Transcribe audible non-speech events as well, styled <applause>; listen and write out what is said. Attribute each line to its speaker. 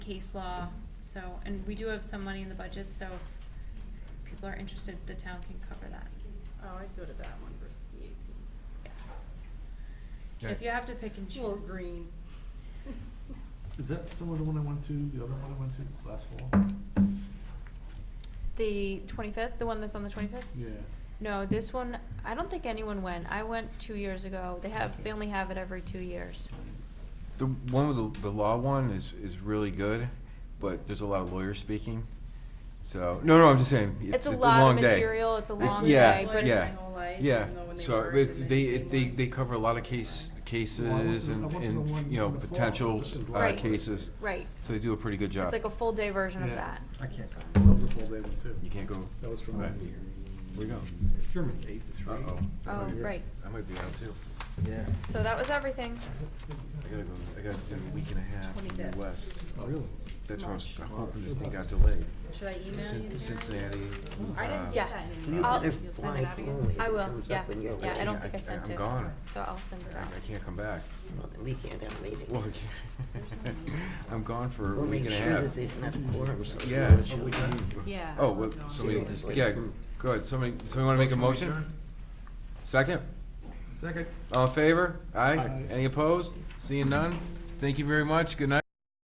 Speaker 1: case law, so, and we do have some money in the budget, so if people are interested, the town can cover that,
Speaker 2: Oh, I'd go to that one versus the eighteen.
Speaker 1: yeah. If
Speaker 3: Okay.
Speaker 1: you have to pick and choose.
Speaker 2: Little green.
Speaker 4: Is that similar to the one I went to, the other one I went to last fall?
Speaker 1: The twenty-fifth, the one that's on the twenty-fifth?
Speaker 4: Yeah.
Speaker 1: No, this one, I don't think anyone went, I went two years ago, they have, they only have it every two years.
Speaker 3: The one with the, the law one is, is really good, but there's a lot of lawyers speaking. So, no, no, I'm just saying, it's,
Speaker 1: It's a
Speaker 3: it's a
Speaker 1: lot of
Speaker 3: long day.
Speaker 1: material, it's a long
Speaker 3: yeah,
Speaker 1: day, but-
Speaker 3: Yeah,
Speaker 2: My whole life,
Speaker 3: yeah,
Speaker 2: even though when they
Speaker 3: so
Speaker 2: worked
Speaker 3: it's,
Speaker 2: and
Speaker 3: they,
Speaker 2: they
Speaker 3: it- they,
Speaker 2: came
Speaker 3: they
Speaker 2: on.
Speaker 3: cover a lot of case,
Speaker 4: Well, I went
Speaker 3: cases
Speaker 4: to- I
Speaker 3: and,
Speaker 4: went to the
Speaker 3: and,
Speaker 4: one
Speaker 3: you know,
Speaker 4: in the fall,
Speaker 3: potential,
Speaker 4: which is
Speaker 3: uh,
Speaker 1: Right.
Speaker 3: cases.
Speaker 1: Right,
Speaker 3: So they do a pretty good job.
Speaker 1: it's like a full day version of
Speaker 4: Yeah.
Speaker 1: that.
Speaker 5: I can't.
Speaker 4: That was a full day one too.
Speaker 3: You can't go.
Speaker 4: That was from
Speaker 3: Right.
Speaker 4: one year.
Speaker 3: Where you go?
Speaker 5: Germany.
Speaker 4: Eight to three.
Speaker 3: Uh-oh.
Speaker 1: Oh,
Speaker 3: Yeah.
Speaker 1: right.
Speaker 3: I might be out too.
Speaker 5: Yeah.
Speaker 1: So that was everything.
Speaker 3: I gotta go, I gotta do a week and a half in the
Speaker 2: 25th.
Speaker 3: West.
Speaker 4: Oh, really?
Speaker 3: That's why I was
Speaker 2: March.
Speaker 3: hoping this thing got delayed.
Speaker 2: Should I email you?
Speaker 3: Cin-
Speaker 2: the
Speaker 3: Cincinnati.
Speaker 2: calendar? I didn't
Speaker 3: uh,
Speaker 2: get
Speaker 1: Yes.
Speaker 2: that
Speaker 1: You
Speaker 2: email.
Speaker 1: better
Speaker 2: You'll send it out again?
Speaker 1: I will, yeah,
Speaker 3: way.
Speaker 1: yeah, I don't think I
Speaker 3: I-
Speaker 1: sent
Speaker 3: I'm
Speaker 1: it,
Speaker 3: gone.
Speaker 1: so I'll send it
Speaker 3: I
Speaker 1: out.
Speaker 3: I can't come back.
Speaker 6: We can't have a meeting.
Speaker 3: Well, <laughs> I'm gone for a
Speaker 6: We'll
Speaker 3: week and
Speaker 6: make
Speaker 3: a
Speaker 6: sure
Speaker 3: half.
Speaker 6: that there's not a quorum, so. we
Speaker 3: Yeah.
Speaker 6: know it's your-
Speaker 2: Yeah.
Speaker 3: Oh,
Speaker 2: I'll
Speaker 3: well,
Speaker 2: go.
Speaker 3: somebody,
Speaker 6: Just like-
Speaker 3: yeah, go ahead, somebody, somebody wanna make a motion? Second?
Speaker 4: Second.
Speaker 3: All in favor? Aye?
Speaker 4: Aye.
Speaker 3: Any opposed? Seeing none? Thank you very much, good night.